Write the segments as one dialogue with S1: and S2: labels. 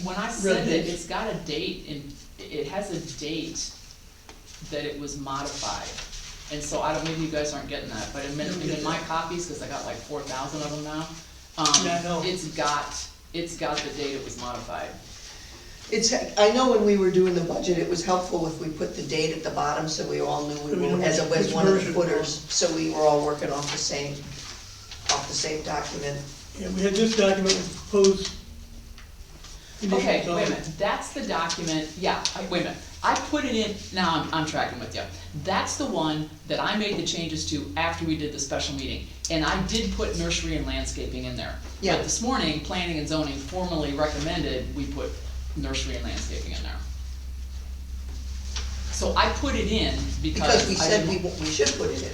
S1: when I send
S2: Real
S1: it,
S2: good.
S1: it's got a date and it has a date that it was modified. And so I don't, maybe you guys aren't getting that, but in min-
S2: Don't get
S1: in my
S2: that.
S1: copies, cause I got like four thousand of them now,
S2: Yeah, I know.
S1: um, it's got, it's got the date it was modified.
S2: It's, I know when we were doing the budget, it was helpful if we put the date at the bottom, so we all knew we were, as it was one of the footers, so we were all working off the same, off the same document.
S3: Yeah, we had this document with proposed. conditions
S1: Okay,
S3: on
S1: wait
S3: it.
S1: a minute, that's the document, yeah, I- wait a minute, I put it in, now I'm, I'm tracking with you. That's the one that I made the changes to after we did the special meeting, and I did put nursery and landscaping in there.
S2: Yeah.
S1: But this morning, planning and zoning formally recommended we put nursery and landscaping in there. So I put it in
S2: Because
S1: because
S2: we
S1: I
S2: said we,
S1: didn't,
S2: we should put it in.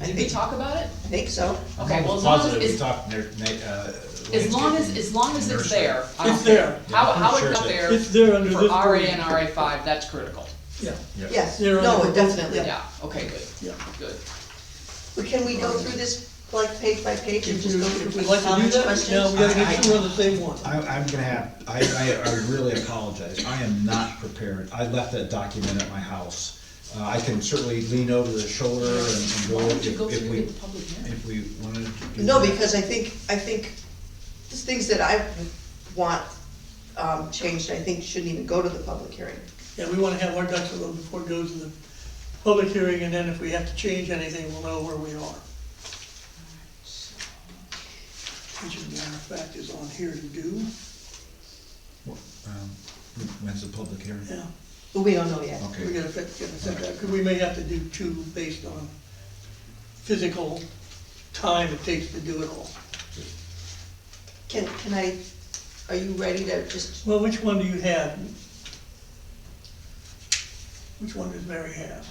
S2: I
S1: did we
S2: think, I
S1: talk about it?
S2: think so.
S1: Okay, well, as long as,
S4: Positive, we
S1: it's-
S4: talked, ner- na- uh.
S1: as long as,
S4: landscaping,
S1: as long as it's
S4: nursery.
S1: there, I don't
S3: It's
S1: care.
S3: there.
S1: How,
S4: Yeah, I'm
S1: how it
S4: sure
S1: got
S4: that-
S1: there,
S3: It's there under
S1: for
S3: this.
S1: RA
S3: version.
S1: and RA five, that's critical.
S3: Yeah,
S4: Yeah.
S2: Yes,
S3: They're
S2: no,
S3: under-
S2: it definitely.
S1: Yeah, okay, good,
S3: yeah.
S1: good.
S2: But can we go through this, like, page by page and
S3: If
S2: just
S3: you,
S2: go
S3: if
S2: through
S3: we'd like to do
S2: comments,
S3: that, now we
S2: questions?
S3: gotta make sure we're on the same one.
S4: I, I'm gonna have, I, I, I really apologize, I am not prepared, I left that document at my house. Uh, I can certainly lean over the shoulder and and go
S1: Why don't
S4: if
S1: you go
S4: if
S1: through
S4: we,
S1: the public hearing?
S4: if we wanted to do
S2: No,
S4: that.
S2: because I think, I think, there's things that I want, um, changed, I think shouldn't even go to the public hearing.
S3: Yeah, we wanna have our ducks in a row before it goes to the public hearing, and then if we have to change anything, we'll know where we are. Which as a matter of fact is on here to do,
S4: Um, When's the public hearing?
S3: yeah.
S2: But we don't know yet.
S3: We
S4: Okay,
S3: gotta fit, get a setback, 'cause we may have to do two based on physical time it takes to do it all.
S2: Can, can I, are you ready to just,
S3: Well, which one do you have? Which one does Mary have?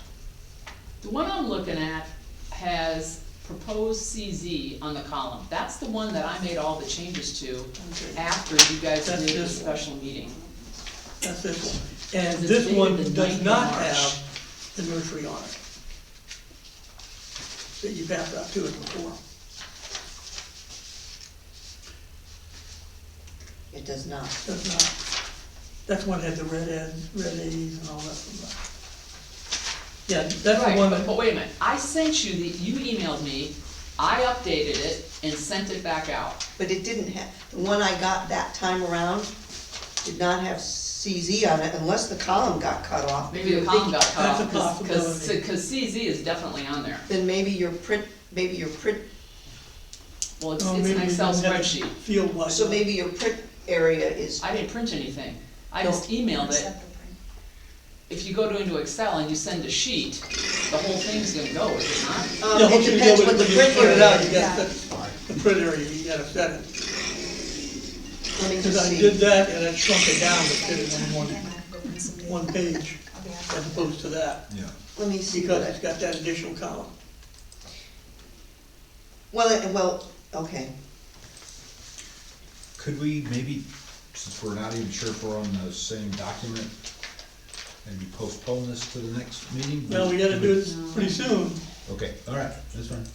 S1: The one I'm looking at has proposed CZ on the column. That's the one that I made all the changes to
S3: Okay,
S1: after you guys
S3: That's
S1: did the
S3: this one.
S1: special meeting.
S3: That's this one. And
S1: Because it's
S3: this one
S1: dated the 9th
S3: does
S1: of
S3: not
S1: March.
S3: have the nursery on it. That you backed up to it before.
S2: it does not.
S3: Does not. That's one that had the red ends, red A's and all that. Yeah, that's the
S1: Right,
S3: one
S1: but-
S3: that,
S1: But wait a minute, I sent you the, you emailed me, I updated it and sent it back out.
S2: But it didn't have, the one I got that time around did not have CZ on it unless the column got cut off.
S1: Maybe the column got cut
S3: That's a
S1: off, cause, 'cause-
S3: possibility.
S1: cause CZ is definitely on there.
S2: Then maybe your print, maybe your print,
S1: Well, it's,
S3: oh,
S1: it's
S3: maybe
S1: an
S3: we
S1: Excel
S3: didn't have it
S1: spreadsheet.
S3: Field wide.
S2: so
S3: enough.
S2: maybe your print area is, um,
S1: I didn't print anything, I
S2: No.
S1: just emailed it. If you go to into Excel and you send a sheet, the whole thing's gonna go, is it not?
S2: um,
S3: Yeah,
S2: it
S3: hopefully you
S2: depends
S3: know
S2: what the
S3: when you
S2: print
S3: put it
S2: area
S3: out, You
S2: is.
S3: got the, the print area, you gotta set it.
S2: Let me
S3: Because
S2: just
S3: I did
S2: see.
S3: that and I shrunk it down to fit it in one, one page as opposed to that,
S4: yeah.
S2: Let me see what
S3: because
S2: I,
S3: it's got that additional column.
S2: well, it- well, okay.
S4: Could we maybe, since we're not even sure if we're on the same document, maybe postpone this to the next meeting?
S3: Now, we gotta do this pretty soon.
S4: Okay, all right, that's fine.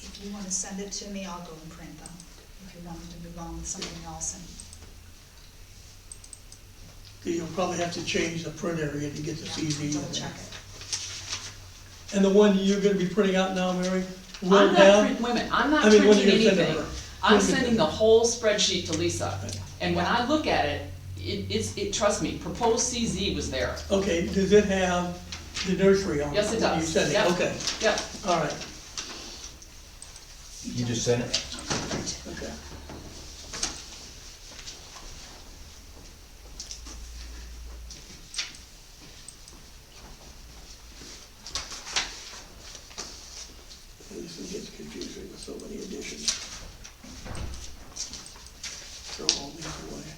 S5: If you wanna send it to me, I'll go and print them, if you want me to move on with something else and.
S3: You'll probably have to change the print area to get the CV.
S5: Double check it.
S3: And the one you're gonna be printing out now, Mary? Roll
S1: I'm not
S3: down?
S1: print, wait a minute, I'm not
S3: I mean,
S1: printing
S3: when you send it
S1: anything.
S3: over.
S1: I'm
S3: When you-
S1: sending the whole spreadsheet to Lisa. And when I look at it, it, it's, it, trust me, proposed CZ was there.
S3: Okay, does it have the nursery on it?
S1: Yes, it
S3: when
S1: does.
S3: You said
S1: Yep.
S3: it, okay,
S1: Yep,
S3: all right,
S4: You just sent it?
S3: okay. This one gets confusing with so many additions. Throw all these away.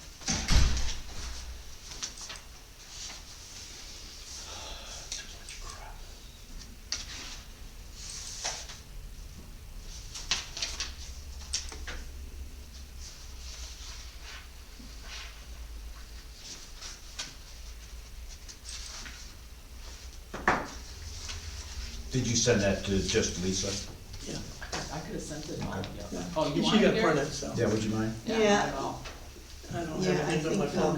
S3: Too much crap.
S4: Did you send that to just Lisa?
S3: Yeah,
S1: I could've sent it all, yeah.
S3: yeah.
S1: Oh, you
S3: She
S1: want it
S3: got
S1: here?
S3: printed, so.
S4: Yeah, would you mind?
S1: Yeah,
S2: Yeah.
S1: not at all.
S3: I don't
S2: Yeah,
S3: have
S2: I
S3: anything on my
S2: think, um,
S3: phone.